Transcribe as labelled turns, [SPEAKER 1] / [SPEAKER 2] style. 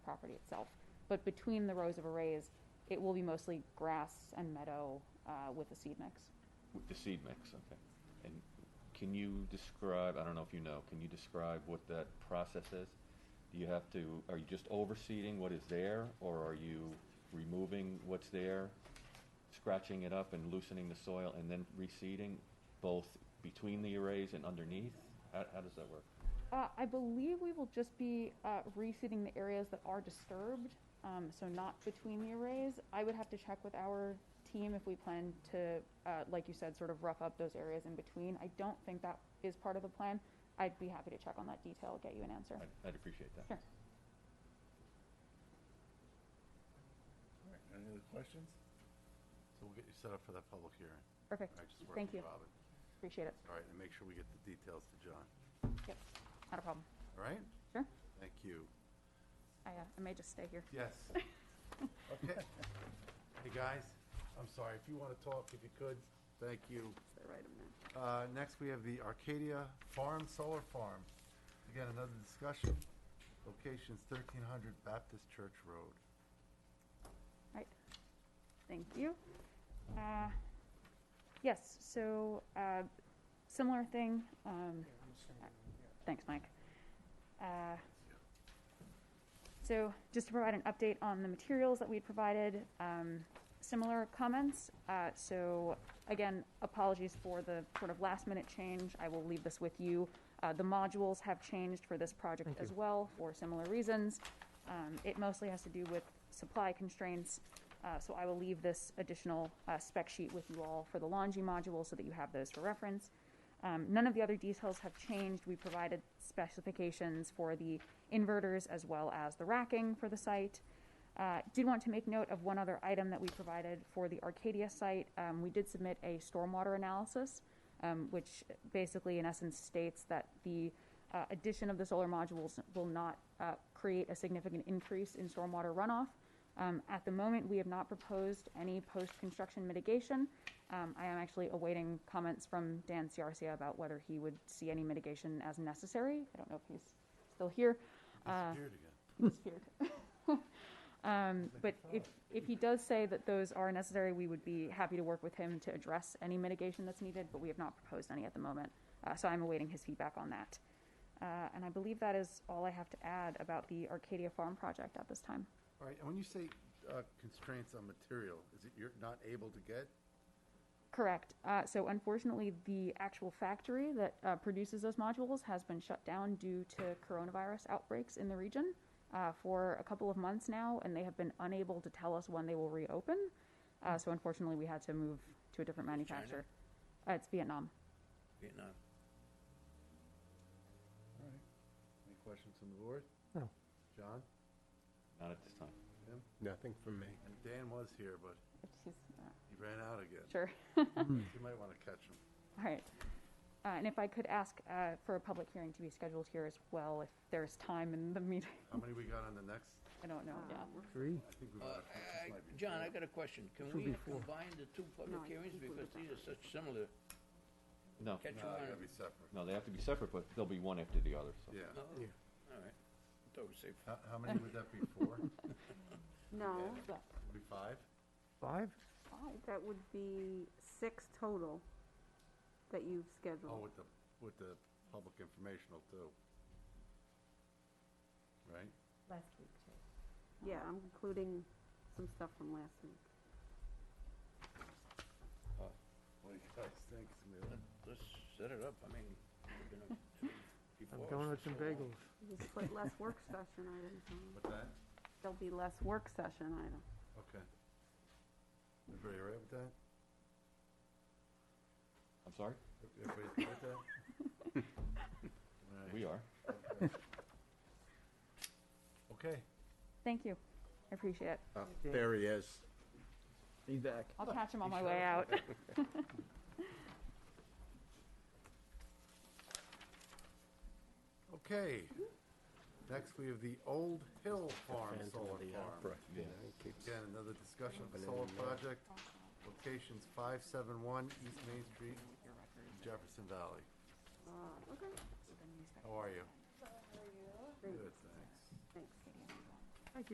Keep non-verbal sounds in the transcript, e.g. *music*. [SPEAKER 1] property itself. But between the rows of arrays, it will be mostly grass and meadow uh, with a seed mix.
[SPEAKER 2] With the seed mix, okay. And can you describe, I don't know if you know, can you describe what that process is? Do you have to, are you just overseeding what is there, or are you removing what's there, scratching it up and loosening the soil, and then reseeding both between the arrays and underneath? How, how does that work?
[SPEAKER 1] Uh, I believe we will just be uh, reseeding the areas that are disturbed, um, so not between the arrays. I would have to check with our team if we plan to, uh, like you said, sort of rough up those areas in between. I don't think that is part of the plan. I'd be happy to check on that detail, get you an answer.
[SPEAKER 2] I'd, I'd appreciate that.
[SPEAKER 1] Sure.
[SPEAKER 3] All right, any other questions? So we'll get you set up for that public hearing.
[SPEAKER 1] Perfect.
[SPEAKER 3] I just work
[SPEAKER 1] Thank you.
[SPEAKER 3] with Robin.
[SPEAKER 1] Appreciate it.
[SPEAKER 3] All right, and make sure we get the details to John.
[SPEAKER 1] Yep. Not a problem.
[SPEAKER 3] All right?
[SPEAKER 1] Sure.
[SPEAKER 3] Thank you.
[SPEAKER 1] I, uh, I may just stay here. *laughs*
[SPEAKER 3] Yes. Okay. Hey, guys, I'm sorry, if you want to talk, if you could, thank you. Uh, Next, we have the Arcadia Farm Solar Farm. Again, another discussion. Location's 1300 Baptist Church Road.
[SPEAKER 1] Right. Thank you. Uh, yes, so uh, similar thing. Um, thanks, Mike. Uh, so just to provide an update on the materials that we had provided, um, similar comments. Uh, so again, apologies for the sort of last minute change. I will leave this with you. Uh, the modules have changed for this project as well for similar reasons. Um, it mostly has to do with supply constraints. Uh, so I will leave this additional uh, spec sheet with you all for the Longi module so that you have those for reference. Um, none of the other details have changed. We provided specifications for the inverters as well as the racking for the site. Uh, did want to make note of one other item that we provided for the Arcadia site. Um, we did submit a stormwater analysis, um, which basically, in essence, states that the uh, addition of the solar modules will not uh, create a significant increase in stormwater runoff. Um, at the moment, we have not proposed any post-construction mitigation. Um, I am actually awaiting comments from Dan Ciarcia about whether he would see any mitigation as necessary. I don't know if he's still here. Uh,
[SPEAKER 3] Disappeared again.
[SPEAKER 1] disappeared. *laughs* Um, but if, if he does say that those are necessary, we would be happy to work with him to address any mitigation that's needed, but we have not proposed any at the moment. Uh, so I'm awaiting his feedback on that. Uh, and I believe that is all I have to add about the Arcadia Farm project at this time.
[SPEAKER 3] All right, and when you say uh, constraints on material, is it you're not able to get?
[SPEAKER 1] Correct. Uh, so unfortunately, the actual factory that uh, produces those modules has been shut down due to coronavirus outbreaks in the region uh, for a couple of months now, and they have been unable to tell us when they will reopen. Uh, so unfortunately, we had to move to a different manufacturer. Uh, it's Vietnam.
[SPEAKER 4] Vietnam.
[SPEAKER 3] All right. Any questions from the board?
[SPEAKER 5] No.
[SPEAKER 3] John?
[SPEAKER 2] Not at this time.
[SPEAKER 3] Tim?
[SPEAKER 5] Nothing from me.
[SPEAKER 3] And Dan was here, but
[SPEAKER 1] It's- uh,
[SPEAKER 3] he ran out again.
[SPEAKER 1] Sure. *laughs*
[SPEAKER 3] You might want to catch him.
[SPEAKER 1] All right. Uh, and if I could ask uh, for a public hearing to be scheduled here as well, if there's time in the meeting. *laughs*
[SPEAKER 3] How many we got on the next?
[SPEAKER 1] I don't know. Yeah.
[SPEAKER 5] Three?
[SPEAKER 3] I think we
[SPEAKER 4] Uh,
[SPEAKER 3] might have.
[SPEAKER 4] I- John, I got a question. Can we combine the two public hearings because these are such similar?
[SPEAKER 2] No,
[SPEAKER 4] Catch
[SPEAKER 3] No,
[SPEAKER 4] one.
[SPEAKER 3] it gotta be separate.
[SPEAKER 2] no, they have to be separate, but they'll be one after the other, so.
[SPEAKER 3] Yeah.
[SPEAKER 4] No? Oh, All right. Thought we said-
[SPEAKER 3] How, how many would that be? Four?
[SPEAKER 6] No,
[SPEAKER 1] But
[SPEAKER 3] Be five?
[SPEAKER 5] Five?
[SPEAKER 6] that would be six total that you've
[SPEAKER 3] Oh,
[SPEAKER 6] scheduled.
[SPEAKER 3] with the, with the public informational too. Right?
[SPEAKER 7] last week too.
[SPEAKER 6] Yeah, I'm including some stuff from last week.
[SPEAKER 3] What do you guys think, Smealy?
[SPEAKER 4] Let's set it up. I mean, we've been, before.
[SPEAKER 5] I'm
[SPEAKER 4] us
[SPEAKER 5] going with
[SPEAKER 4] for
[SPEAKER 5] some
[SPEAKER 4] so long.
[SPEAKER 5] bagels.
[SPEAKER 6] You just put less work *laughs* session items on.
[SPEAKER 3] What's that?
[SPEAKER 6] There'll be less work session items.
[SPEAKER 3] Okay. Everybody all right with that?
[SPEAKER 2] I'm sorry?
[SPEAKER 3] Everybody's good with that? All right.
[SPEAKER 2] We are.
[SPEAKER 3] Okay.
[SPEAKER 1] Thank you. I appreciate it.
[SPEAKER 5] there
[SPEAKER 3] he is.
[SPEAKER 5] Be back.
[SPEAKER 1] I'll catch him on my way out.
[SPEAKER 3] Okay. Next, we have the Old Hill Farm Solar Farm. Again, another discussion of the solar project. Locations five seven one East Main Street, Jefferson Valley.
[SPEAKER 6] Ah, okay,
[SPEAKER 3] How are you?
[SPEAKER 6] Great.
[SPEAKER 3] Good, thanks.
[SPEAKER 6] thanks.